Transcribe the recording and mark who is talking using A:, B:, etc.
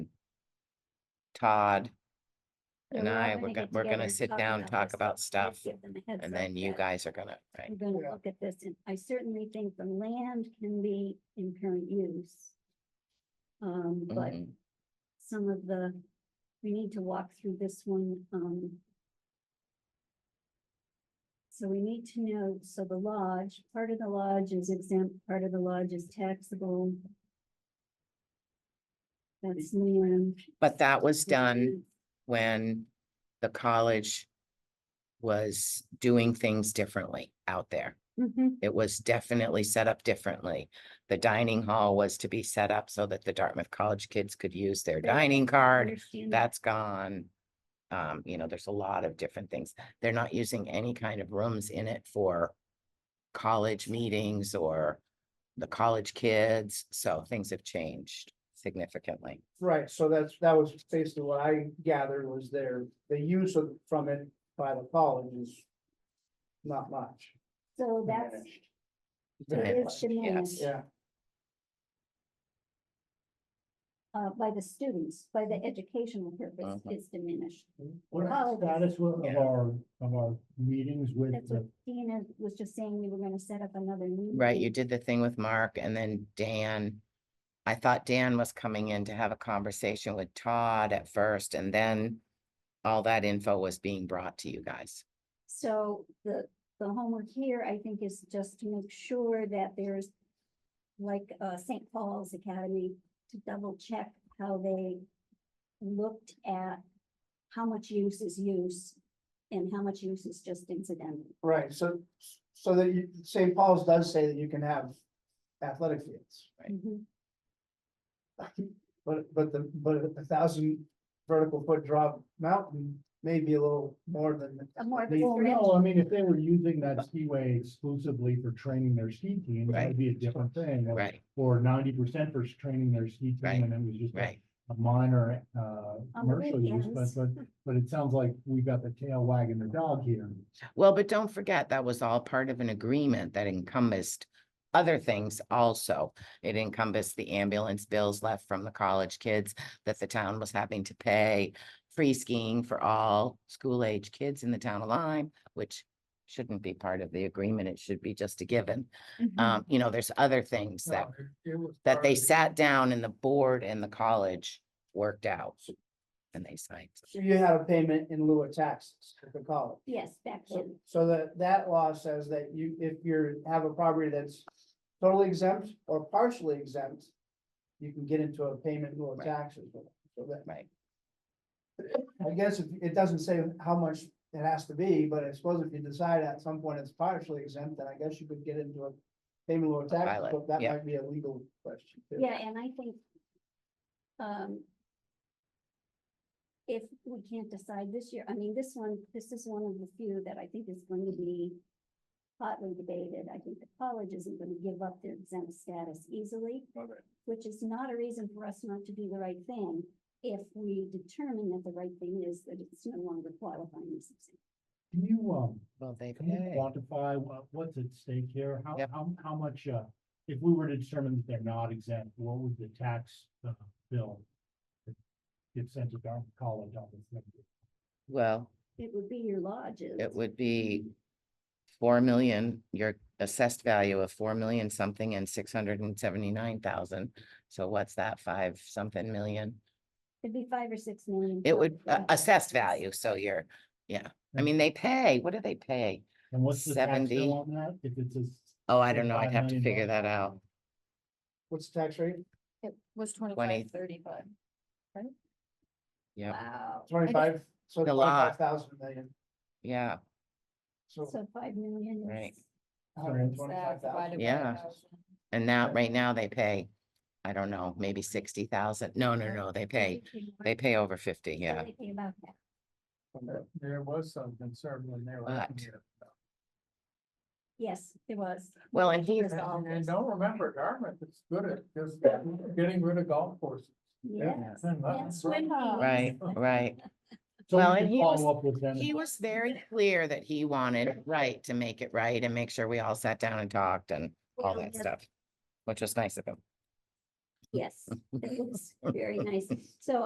A: Todd, and
B: we
A: I,
B: all
A: we're
B: get
A: gonna, we're
B: together
A: gonna
B: and
A: sit down,
B: about
A: talk
B: this
A: about
B: and
A: stuff,
B: give them a heads
A: and
B: up
A: then you
B: that
A: guys are gonna, right?
B: We're gonna look at this, and I certainly think the land can be in current use. Um, but
A: Mhm.
B: some of the, we need to walk through this one, um. So we need to know, so the lodge, part of the lodge is exempt, part of the lodge is taxable. That's land.
A: But that was done when the college was doing things differently out there.
B: Mhm.
A: It was definitely set up differently. The dining hall was to be set up so that the Dartmouth College kids could use their
B: That-
A: dining
B: I
A: card.
B: understand that.
A: That's gone. Um, you know, there's a lot of different things. They're not using any kind of rooms in it for college meetings or the college kids, so things have changed significantly.
C: Right, so that's, that was basically what I gathered was their, the use of, from it by the college is not much.
B: So that's,
C: Very
B: it
A: Diminished,
B: is
C: much.
B: diminished,
C: Yeah,
B: uh, by the students, by
D: Mm-hmm.
B: the educational purpose
D: Uh-huh.
A: Mhm.
B: is diminished.
D: What
B: Oh,
D: is the status of
A: yeah.
D: our, of our meetings with
B: That's what
D: the,
B: Dina was just saying, we were gonna set up another meeting.
A: Right, you did the thing with Mark and then Dan. I thought Dan was coming in to have a conversation with Todd at first and then all that info was being brought to you guys.
B: So the, the homework here, I think, is just to make sure that there's like, uh, St. Paul's Academy to double check how they looked at how much use is use and how much use is just incidental.
C: right, so, so that you, St. Paul's does say that you can have athletic fields.
A: Right.
B: Mhm.
C: But, but the, but a thousand vertical foot drop mountain may be a little more than.
B: A more of a
C: They-
D: well,
B: stretch.
D: no, uh, I mean, if they were using that skiway exclusively for training their ski team, that
A: Right.
D: would be a different thing. or-
A: Right,
D: Or ninety percent for training their ski
A: Right.
D: team, and it was just a
A: right.
D: a minor, uh,
B: On the
D: commercial use, but,
B: weekends.
D: but, but it sounds like we got the tail wagging the dog here.
A: Well, but don't forget, that was all part of an agreement that encompassed other things also. It encompassed the ambulance bills left from the college kids that the town was having to pay, free skiing for all school age kids in the town of Lyme, which shouldn't be part of the agreement. It should be just a given.
B: Mm-hmm.
A: Um, you know, there's other things that, that they sat down and the board and the college worked out. And they signed.
C: So you had a payment in lieu of taxes at the college.
B: Yes, back
C: So,
B: in,
C: so that, that law says that you, if you're, have a property that's totally exempt or partially exempt, you can get into a payment in lieu of
A: Right.
C: taxes. with it. So that,
A: Right.
C: I guess if- it doesn't say how much it has to be, but I suppose if you decide at some point it's partially exempt, then I guess you could get into a payment in lieu of taxes,
A: pilot,
C: but that
A: yeah.
C: might be a legal question. too.
B: yeah, and I think um, if we can't decide this year, I mean, this one, this is one of the few that I think is going to be hotly debated. I think the college isn't going to give up their exempt status easily, which is not a reason for us not to do the right thing if we determine that the right thing is that it's no longer qualifying as exempt.
D: Can you, um,
A: Well, they
D: Can you
A: pay.
D: quantify what, what's at stake here? How,
A: Yep.
D: how, how much, uh, if we were to determine that they're not exempt, what would the tax, uh, bill? that Get sent to Dartmouth College on this. next year?
A: Well,
B: It would be your lodges.
A: It would be four million, your assessed value of four million something and six hundred and seventy-nine thousand. So what's that, five something million?
B: It'd be five or six million.
A: It would, uh,
B: probably.
A: assessed value, so you're, yeah, I mean, they pay, what do they pay?
D: And what's the tax
A: 70.
D: bill on that? If it's a, s-
A: Oh, I don't know, I'd
D: $25
A: have to
D: million
A: figure that out.
C: What's the tax rate?
E: It was
A: 20.
E: twenty-five, thirty-five.
A: Yeah,
B: Wow.
C: Twenty-five,
A: A
C: so
A: lot.
C: twenty-five thousand million,
A: yeah,
C: so
B: So five million
A: Right.
B: is.
C: hundred and
E: Is that
C: twenty-five thousand.
E: divided by
A: Yeah.
E: 1,000?
A: and now, right now, they pay, I don't know, maybe sixty thousand, no, no, no, they pay, they pay over fifty, yeah.
B: About that.
C: There was some concern when they
A: were But-
B: Yes, it was.
A: Well, and he's,
B: There's all this.
C: don't remember, Dartmouth is good at just getting rid of golf courses.
B: Yes. Yes,
C: right.
B: when he was-
A: right, right.
D: so
A: Well,
D: we
A: and
D: can
A: he was-
D: follow up with them.
A: He was very clear that he wanted it right to make it right and make sure we all sat down and talked and all
B: Well,
A: that
B: yes,
A: stuff, which was nice of him.
B: Yes, it was very nice. So